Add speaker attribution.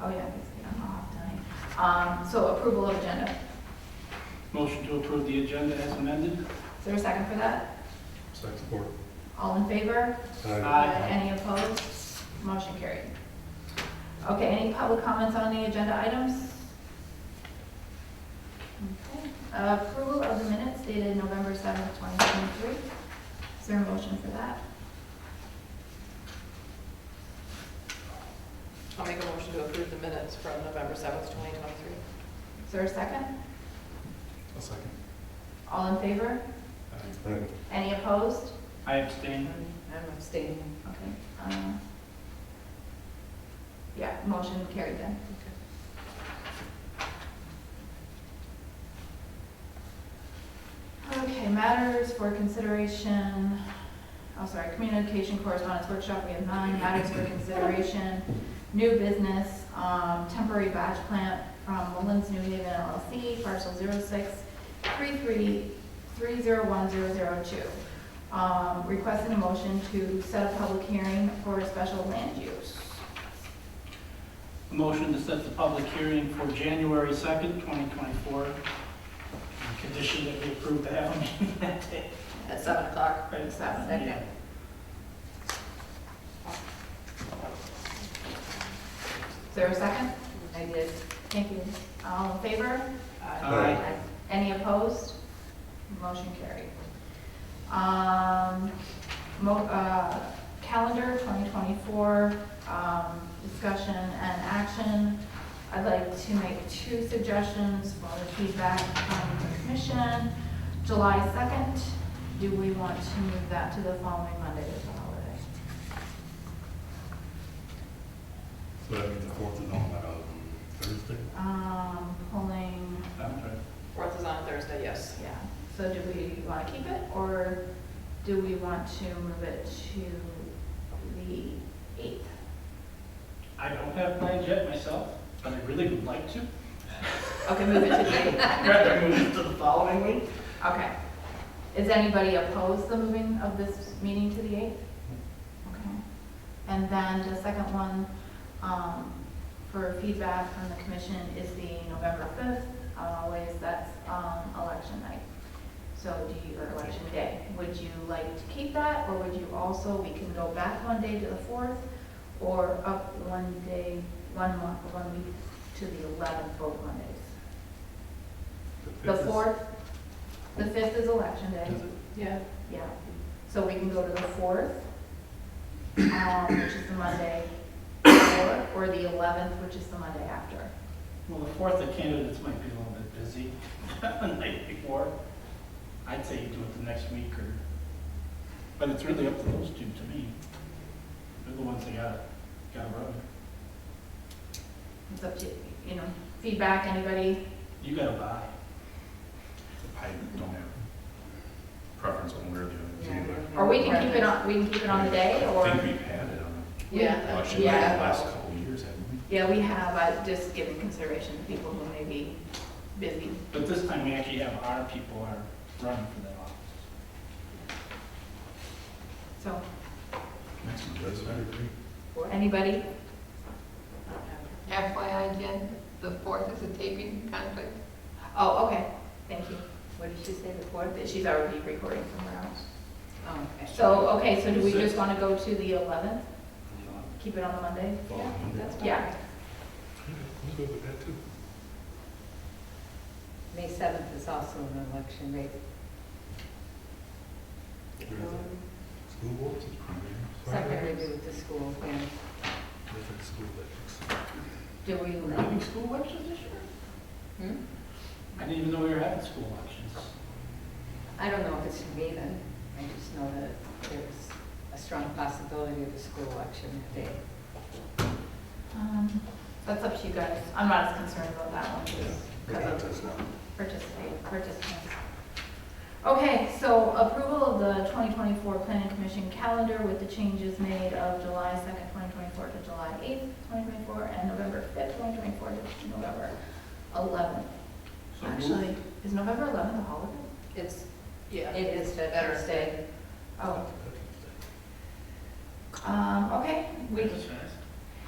Speaker 1: Oh, Um, So approval of agenda.
Speaker 2: Motion to approve the agenda as amended?
Speaker 1: Is there a second for that?
Speaker 3: Support.
Speaker 1: All in favor?
Speaker 3: Aye.
Speaker 2: Aye.
Speaker 1: Any opposed? Motion carried. Okay, any public comments on the agenda items? Okay. Approval of the minutes dated November 7th, 2023. Is there a motion for that?
Speaker 4: I'll make a motion to approve the minutes from November 7th, 2023.
Speaker 1: Is there a second?
Speaker 3: I'll second.
Speaker 1: All in favor?
Speaker 3: Aye.
Speaker 1: Any opposed?
Speaker 2: I abstain.
Speaker 4: I'm abstaining.
Speaker 1: Okay. um, Yeah, motion carried then. Okay, matters for consideration, oh, sorry, communication correspondence workshop, we have nine matters for consideration. New business, um, temporary batch plant from Mullins New Haven LLC, parcel zero six three three three zero one zero zero two. Um, requesting a motion to set a public hearing for a special land use.
Speaker 2: A motion to set the public hearing for January 2nd, 2024. Condition that we approve the have a meeting that day.
Speaker 4: At 7 o'clock.
Speaker 2: Right, it's not a
Speaker 4: Second.
Speaker 2: meeting.
Speaker 1: Is there a second?
Speaker 4: I did.
Speaker 1: Thank you. All in favor?
Speaker 2: Aye.
Speaker 1: Any opposed? Motion carried. Um, mo- uh, Calendar 2024, um, discussion and action. I'd like to make two suggestions for the feedback from the commission. July 2nd, do we want to move that to the following Monday as a holiday?
Speaker 3: So that means the fourth is on that, um, Thursday?
Speaker 1: Um, Pulling,
Speaker 2: I'm sorry.
Speaker 4: 4th is on Thursday, yes.
Speaker 1: yeah, so do we want to keep it, or do we want to move it to the 8th?
Speaker 2: I don't have plans yet myself, but I really would like to.
Speaker 1: Okay, move it to the 8th,
Speaker 2: I'd rather move it to the following week.
Speaker 1: okay. Is anybody opposed to moving of this meeting to the 8th? Okay. And then the second one, um, for feedback from the commission is the November 5th, uh, always that's, um, election night. So do you, or election day, would you like to keep that, or would you also, we can go back one day to the 4th, or up one day, one month, one week to the 11th, both Mondays? The
Speaker 3: fifth is-
Speaker 1: 4th, the 5th is election day.
Speaker 3: Is it?
Speaker 4: Yeah.
Speaker 1: Yeah, so we can go to the fourth, um, which is the Monday before, or the eleventh, which is the Monday after.
Speaker 2: Well, the 4th, the candidates might be a little bit busy the night before. I'd say you do it the next week or, but it's really up to those two to me. They're the ones that got, got a run.
Speaker 1: It's up to, you know, feedback, anybody?
Speaker 2: You gotta buy.
Speaker 3: I don't have preference on where the, I
Speaker 1: Or we can keep it on, we can keep it on the day, or,
Speaker 3: think we've had it on the
Speaker 4: Yeah.
Speaker 3: election night
Speaker 1: Yeah.
Speaker 3: the last couple of years, haven't we?
Speaker 1: yeah, we have, uh, just giving consideration to people who may be busy.
Speaker 2: But this time, we actually have our people are running for that office.
Speaker 1: So,
Speaker 3: Next one does, I agree.
Speaker 1: anybody?
Speaker 5: FYI, Jen, the fourth is a taping conflict.
Speaker 1: Oh, okay, thank you.
Speaker 5: What did she say, the fourth?
Speaker 1: That She's already recording somewhere else.
Speaker 5: Oh, okay.
Speaker 1: So, okay, so do we just wanna go to the eleventh, keep it on the Monday?
Speaker 3: Follow Monday.
Speaker 4: That's fine.
Speaker 1: Yeah,
Speaker 3: I'm good with that too.
Speaker 6: May 7th is also an election day.
Speaker 4: Um,
Speaker 3: School boards is primary.
Speaker 6: Something to do with the school, yeah.
Speaker 3: Different school districts.
Speaker 1: do we?
Speaker 2: We're having school elections this year?
Speaker 6: Hmm?
Speaker 2: I didn't even know we were having school elections.
Speaker 6: I don't know if it's should be then. I just know that there's a strong possibility of a school election that day.
Speaker 1: Um, That's up to you guys. I'm not as concerned about that one, just
Speaker 3: But
Speaker 1: because
Speaker 3: that
Speaker 1: of
Speaker 3: does not.
Speaker 1: participate, participants. Okay, so approval of the 2024 Planning Commission calendar with the changes made of July 2nd, 2024 to July 8th, 2024, and November 5th, 2024 to November 11th.
Speaker 2: So moved.
Speaker 1: Actually, is November 11th a holiday?
Speaker 6: It's,
Speaker 4: Yeah.
Speaker 6: it is Veterans Day.
Speaker 1: Oh, um, okay, we,
Speaker 2: That's